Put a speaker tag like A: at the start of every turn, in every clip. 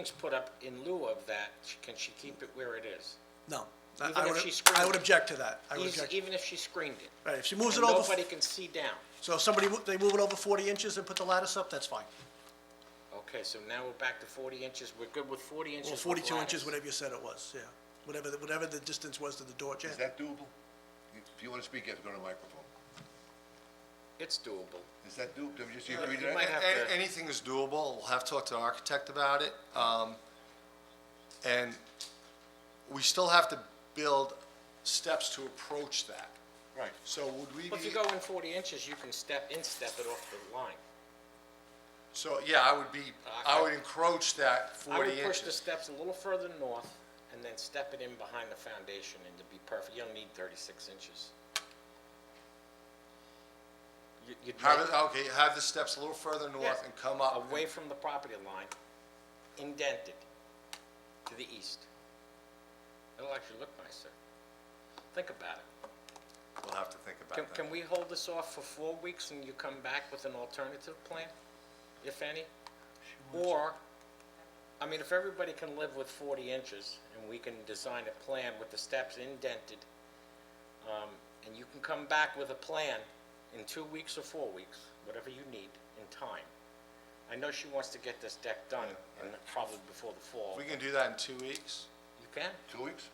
A: things put up in lieu of that, sh- can she keep it where it is?
B: No, I-
A: Even
B: I
A: if
B: would,
A: she screwed
B: I would
A: it.
B: object to that. I would
A: Eas-
B: object,
A: Even if she screened it?
B: right, if she moves it
A: And
B: over,
A: nobody can see down?
B: so if somebody, mo- they move it over 40 inches and put the lattice up, that's fine.
A: Okay, so now we're back to forty inches, we're good with forty inches
B: Or
A: with
B: 42 inches,
A: lattice.
B: whatever you said it was, yeah. Whatever, the- whatever the distance was to the door, yeah.
C: Is that doable? If you want to speak, you have to go to the microphone.
A: It's doable.
C: Is that doable? Do you just agree to
A: Uh, You might
C: that?
A: have
D: A-
A: to-
D: Anything is doable, we'll have to talk to an architect about it. Um, And we still have to build steps to approach that.
C: Right.
D: So would we
A: Well, if you
D: be,
A: go in forty inches, you can step, in-step it off the line.
D: so, yeah, I would be, I would encroach that
A: I
D: 40
A: would push the
D: inches.
A: steps a little further north and then step it in behind the foundation and to be perfect, you don't need thirty-six inches. You- You'd
D: Have
A: make-
D: it, okay, have the steps a little further north
A: Yeah.
D: and come up.
A: away from the property line, indented to the east. It'll actually look nicer. Think about it.
D: We'll have to think
A: Can,
D: about that.
A: can we hold this off for four weeks and you come back with an alternative plan, if any? Or, I mean, if everybody can live with forty inches and we can design a plan with the steps indented, um, and you can come back with a plan in two weeks or four weeks, whatever you need, in time. I know she wants to get this deck done, and probably before the fall.
D: We can do that in two weeks,
A: You can?
C: Two weeks?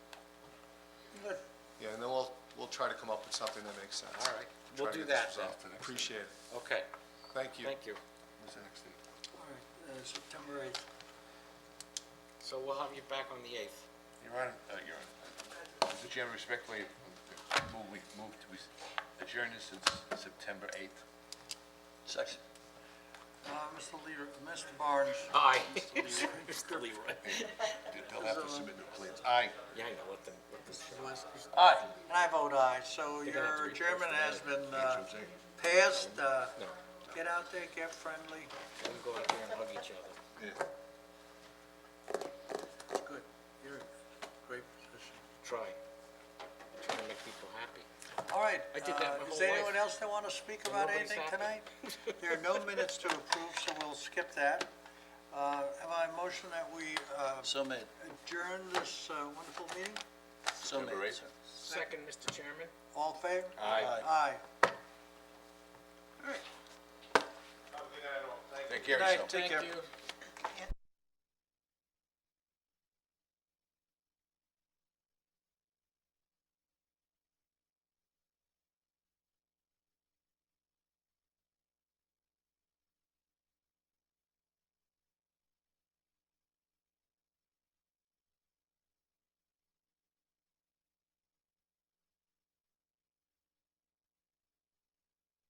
D: yeah, and then we'll, we'll try to come up with something that makes sense.
A: All right.
D: Try
A: We'll
D: to
A: do
D: get this
A: that then.
D: resolved. Appreciate it,
A: Okay,
D: thank you.
A: thank you.
C: When's the next date?
E: All right, uh, September 8th.
A: So we'll have you back on the eighth.
C: Your Honor, uh, Your Honor, Mr. Chairman, respectfully, uh, move, we move to we adjourn this since September 8th. Second.
E: Uh, Mr. Leader, Mr. Barnes.
A: Aye.
E: Mr. Leader.
A: Mr. Leroy.
C: They'll have to submit their plans. Aye.
A: Yeah, I know, let them, let them.
E: Aye. And I vote aye, so
A: They're gonna have to
E: your
A: repost
E: German
A: the
E: has been uh, passed. Uh, Get out there, get friendly,
A: Let them go out there and hug each other.
E: good. You're in great position.
A: Try. Try to make people happy.
E: All right.
A: I did that
E: uh,
A: my whole
E: Is there
A: life.
E: anyone else that want to speak about
A: nobody's
E: anything tonight?
A: happy.
E: There are no minutes to approve, so we'll skip that. Uh, Have I motion that we uh,
F: So made,
E: adjourn this uh, wonderful meeting?
F: so made,
C: Number eight.
F: sir.
A: Second, Mr. Chairman?
E: All in favor?
C: Aye.
E: Aye.
C: Take care of
E: Good night.
C: yourself.
E: Take care.
A: Thank you.